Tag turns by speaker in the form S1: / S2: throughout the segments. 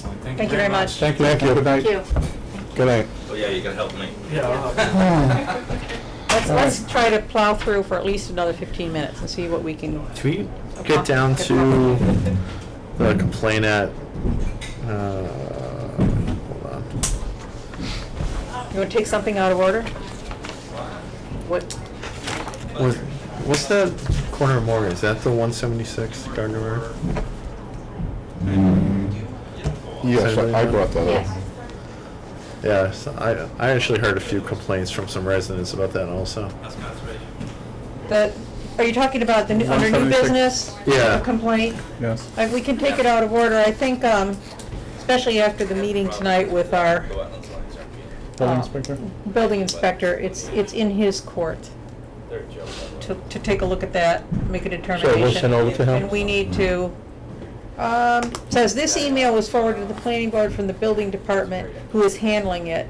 S1: Thank
S2: Thank you very much.
S3: Thank you, good night.
S2: Thank you.
S3: Good night.
S1: Oh, yeah, you can help me.
S4: Yeah, I'll help
S2: Hmm. Let's,
S3: All
S2: let's
S3: right.
S2: try to plow through for at least another 15 minutes and see what we can.
S5: Do we get down to the complaint at, uh, hold on.
S2: You want to take something out of order? What,
S5: Was, what's that corner of Morgan? Is that the one seventy-six Gardner Road?
S3: Yes, I I brought that up.
S5: Yeah, so I, I actually heard a few complaints from some residents about that also.
S1: That's not right.
S2: the, are you talking about the, new- under new
S3: 176.
S2: business?
S5: Yeah.
S2: Complaint?
S3: Yes.
S2: Like, we can take it out of order. I think, um, especially after the meeting tonight with our uh,
S1: Go out and slide something.
S2: building
S3: Building inspector?
S2: inspector, it's, it's in his court
S1: They're a joke, by the way.
S2: to, to take a look at that, make a determination.
S5: So we'll send over to him?
S2: And we need to, um, says this email was forwarded to the planning board from the building department, who is handling it.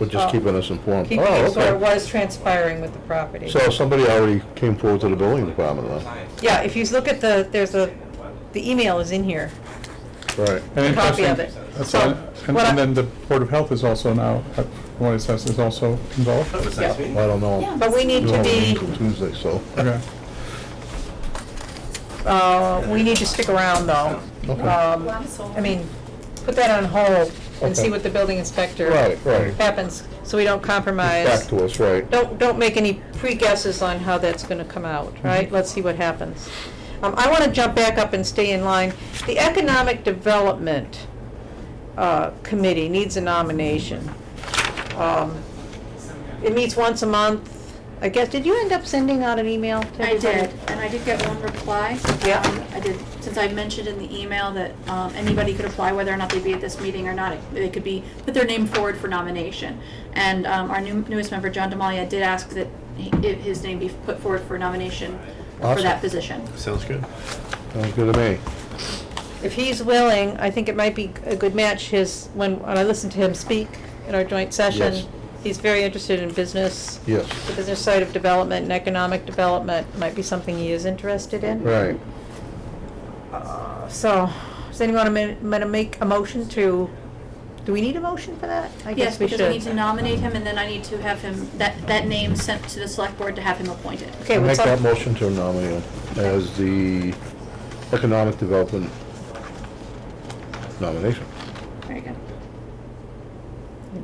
S3: We're
S2: just keeping
S3: us informed.
S2: Oh.
S3: Oh,
S2: Keeping it sort of what is transpiring with the property.
S3: somebody already came forward to the building department
S2: Yeah, if you look at the, there's a, the email is in here.
S3: Right.
S6: And
S2: Copy of
S6: interesting-
S2: it.
S6: that's
S2: So,
S6: all. And
S2: what I-
S6: and then the Board of Health is also now, uh, from what it says, is also involved.
S2: Yeah.
S3: I don't know.
S2: But we need to be,
S3: Tuesday, so.
S6: Okay.
S2: uh, we need to stick around though.
S3: Okay.
S2: Um, I mean, put that on hold and see
S3: Okay.
S2: what the building inspector
S3: Right, right.
S2: happens, so we don't compromise.
S3: Back to us, right.
S2: don't, don't make any pre-guesses on how that's gonna come out,
S3: Mm-hmm.
S2: right? Let's see what happens. Um, I wanna jump back up and stay in line. The Economic Development, uh, Committee needs a nomination. Um, It meets once a month, I guess. Did you end up sending out an email to
S7: I
S2: everybody?
S7: did, and I did get one reply.
S2: Yeah.
S7: Um, I did, since I mentioned in the email that um, anybody could apply, whether or not they'd be at this meeting or not, they could be, put their name forward for nomination. And um, our new- newest member, John Demalia, did ask that he- if his name be put forward for nomination for
S3: Awesome.
S7: that position.
S5: Sounds good.
S3: Sounds good to me.
S2: If he's willing, I think it might be a good match, his, when, when I listened to him speak in our joint
S3: Yes.
S2: session, he's very interested in business.
S3: Yes.
S2: the business side of development and economic development might be something he is interested in. Uh,
S3: Right.
S2: So, does anyone want to make a motion to, do we need a motion for that? I
S7: Yes,
S2: guess we
S7: because I need
S2: should.
S7: to nominate him, and then I need to have him, that, that name sent to the select board to have him appointed.
S2: Okay,
S3: Make
S2: what's
S3: that
S2: up?
S3: motion to nominate him as the economic development nomination.
S7: Very good.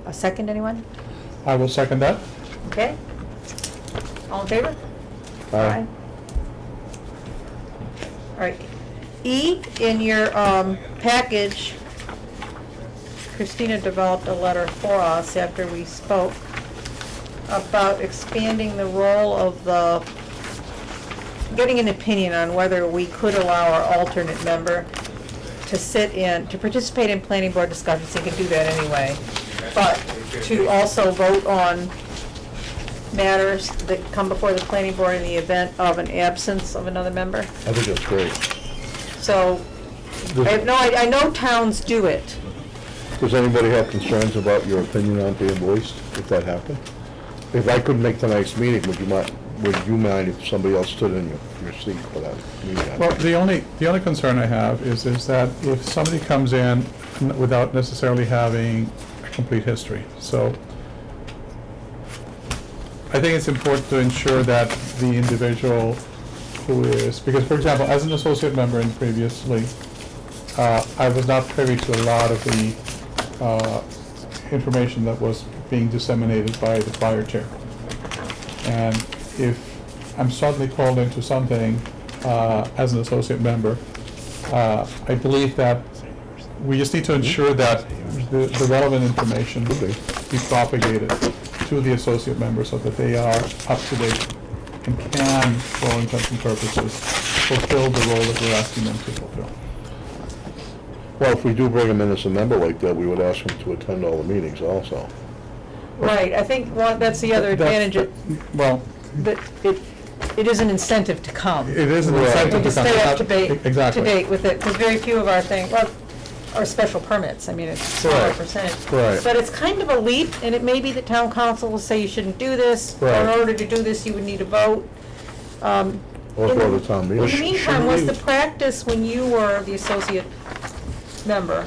S2: A second, anyone?
S6: I will second that.
S2: Okay? All in favor?
S3: Aye.
S2: All right. E, in your, um, package, Christina developed a letter for us after we spoke about expanding the role of the, getting an opinion on whether we could allow our alternate member to sit in, to participate in planning board discussions, he can do that anyway, but to also vote on matters that come before the planning board in the event of an absence of another member.
S3: I think that's great.
S2: So, I have no, I I know towns do it.
S3: Does anybody have concerns about your opinion on being voiced, if that happened? If I couldn't make tonight's meeting, would you mind, would you mind if somebody else stood in your, your seat for that meeting?
S6: Well, the only, the only concern I have is, is that if somebody comes in n- without necessarily having a complete history, so I think it's important to ensure that the individual who is, because for example, as an associate member in previously, uh, I was not privy to a lot of the, uh, information that was being disseminated by the prior chair. And if I'm suddenly called into something uh, as an associate member, uh, I believe that we just need to ensure that the the relevant information
S3: Okay.
S6: be propagated to the associate members so that they are up to date and can, for all intents and purposes, fulfill the role that we're asking them to fulfill.
S3: Well, if we do bring him in as a member like that, we would ask him to attend all the meetings also.
S2: Right, I think one, that's the other
S6: That's-
S2: advantage, it-
S6: Well,
S2: that it, it is an incentive to come.
S6: it is an
S3: Right.
S6: incentive
S2: To
S6: to come.
S2: stay up to
S6: Exactly.
S2: date, to date with it, because very few of our things, well, are special permits, I mean, it's a smaller
S3: Right.
S2: percentage.
S3: Right.
S2: But it's kind of a leap, and it may be that town council will say you shouldn't do this. or In
S3: Right.
S2: order to do this, you would need a vote. Um,
S3: Or
S2: in-
S3: go to town
S2: In the
S3: meeting.
S2: meantime, was the practice when you were the associate member,